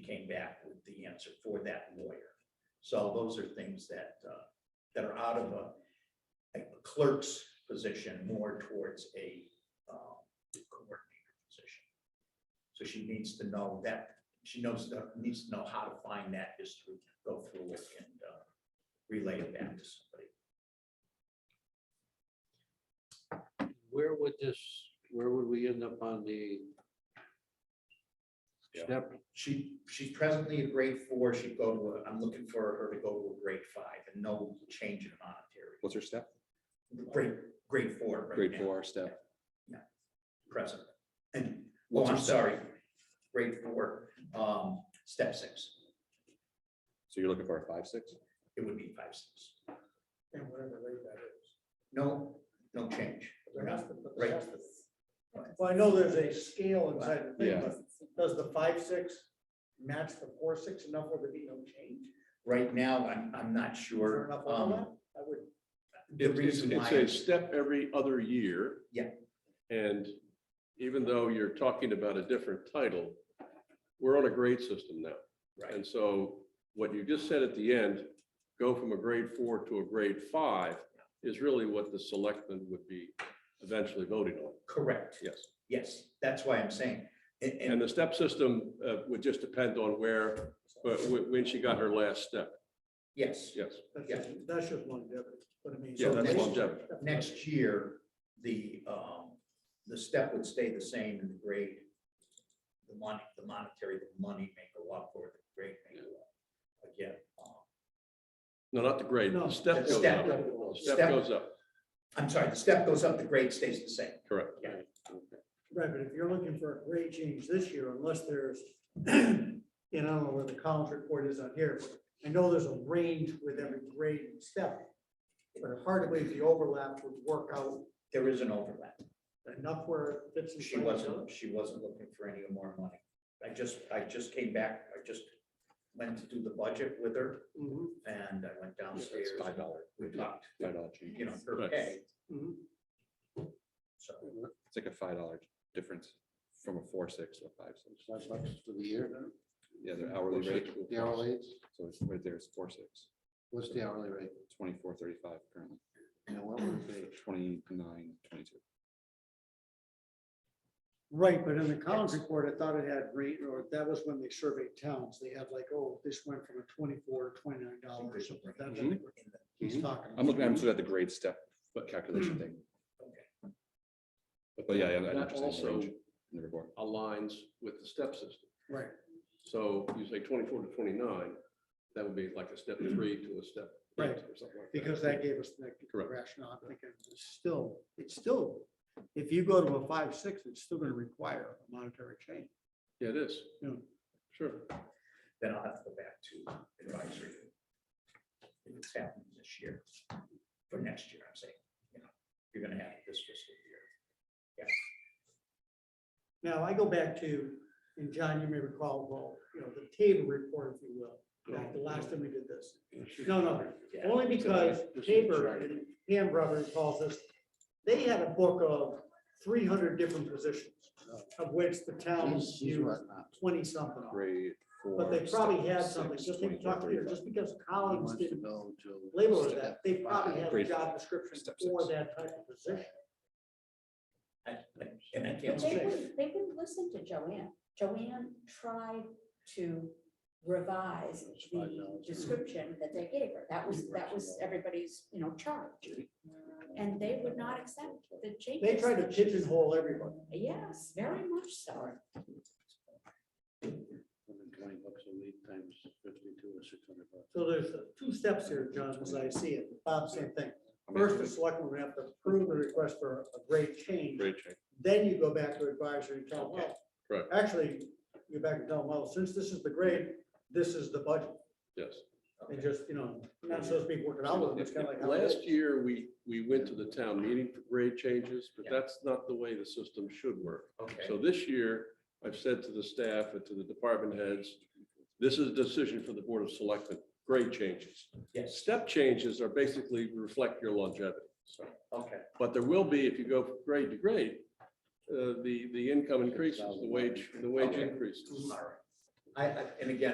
came back with the answer for that lawyer. So those are things that, uh, that are out of a a clerk's position more towards a, um, coordinator position. So she needs to know that, she knows, that- needs to know how to find that history, go through it and, uh, relay it back to somebody. Where would this, where would we end up on the Yeah. step? She, she's presently a grade four, she'd go to, a- I'm looking for her to go to a grade five and no change in monetary. What's her step? Grade, grade four right Grade now, four step. present. And, oh, What's her I'm step? sorry, grade four, um, step six, So you're looking for a five, six? it would be five, six. And whatever rate that is. No, no change. There has to- but Right. there has to- Well, I know there's a scale inside the thing, Yeah. but does the five, six match the four, six enough where there'd be no change? Is Right now, I'm, I'm not there sure. enough um, overlap? I would, The It's, reason it's why, a step every other year. Yeah. And even though you're talking about a different title, we're on a grade system now. right, And so what you just said at the end, go from a grade four to a grade five is really what the selectmen would be eventually voting on. correct, Yes. yes, that's why I'm saying, and, and And the step system uh, would just depend on where, but wh- when she got her last step. yes. Yes. that's Yeah. just, that's just longevity, but I mean. Yeah, so that's next- longevity. Next year, the, um, the step would stay the same and the grade, the money, the monetary, the money may go up or the grade may go up. Again, um, No, not the grade. No, The step the goes step. up. yeah, The Step. Step goes up. I'm sorry, the step goes up, the grade stays the same. Correct. Right, but if you're looking for a grade change this year, unless there's, and I don't know where the college report is on here, but I know there's a range with every grade and step. But hardly the overlap would work out There is an overlap. enough where it fits. She inside each other. wasn't, she wasn't looking for any more money. I just, I just came back, I just went to do the budget with her Mhm, and I went downstairs. It's Five dollar, We talked, five dollar change. you know, her Right. pay, Mm-hmm. mhm. so. It's like a five dollar difference from a four, six to a five, six. Five bucks for the year, Yeah, their hourly Four, rate. six. the hourly, So it's right there, it's four, six, what's the hourly rate? twenty-four, thirty-five currently, Now, what would it be? twenty-nine, twenty-two. Right, but in the college report, I thought it had rate, or that was when they surveyed towns, they had like, oh, this went from a twenty-four to twenty-nine dollars. He's talking. Mm-hmm. I'm looking, I'm looking at the grade step calculation thing. Okay. But but yeah, yeah. I know That what you're saying, the also range in the report. aligns with the step system. Right, So you say twenty-four to twenty-nine, that would be like a step three to a step. eight Mm-hmm. Right, or something like that. because that gave us the Correct. rationale, I'm thinking, it's still, it's still, if you go to a five, six, it's still gonna require a monetary change. Yeah, it is. Yeah. Sure. then I'll have to go back to advisory. If it's happening this year, for next year, I'm saying, you know, you're gonna have it this fiscal year. Now, I go back to, and John, you may recall, well, you know, the table report, if you will, back the last time we did this. No, no, Yeah, Only because Tabor and Ham Brothers calls us, they had a book of three hundred different positions, of which the towns He's- he's used right now. twenty something. of. Grade four. But they probably step had something, six, just like 24, talk here, 35. just because He Collins wants to didn't go to label it step that, they probably five. had a grade job description step for six. that type of position. I- I- And I But can't They say, wouldn't, they wouldn't listen to Joanne. Joanne tried to revise the description that they gave her. That was, that was everybody's, you know, charge. And they would not accept the changes. They tried to that she- pigeonhole everybody. Yes, very much so. Twenty bucks a week times fifty-two or six hundred bucks. So there's uh, two steps here, John, as I see it. Bob, same thing. I mean, First, the selectmen would have to approve the request for a grade change. Great check. then you go back to advisory and tell them, well. Correct. Actually, you go back and tell them, well, since this is the grade, this is the budget, Yes. and just, you know, not supposed to be working out with them, it's kind of like. how it is. Last year, we, we went to the town meeting for grade changes, but Yeah. that's not the way the system should work. okay, So this year, I've said to the staff and to the department heads, this is a decision for the Board of Selectmen, grade changes. yes, Step changes are basically reflect your longevity. So okay, But there will be, if you go from grade to grade, uh, the, the income increases, the wage, the wage Okay. increases. all right. I, I, and again,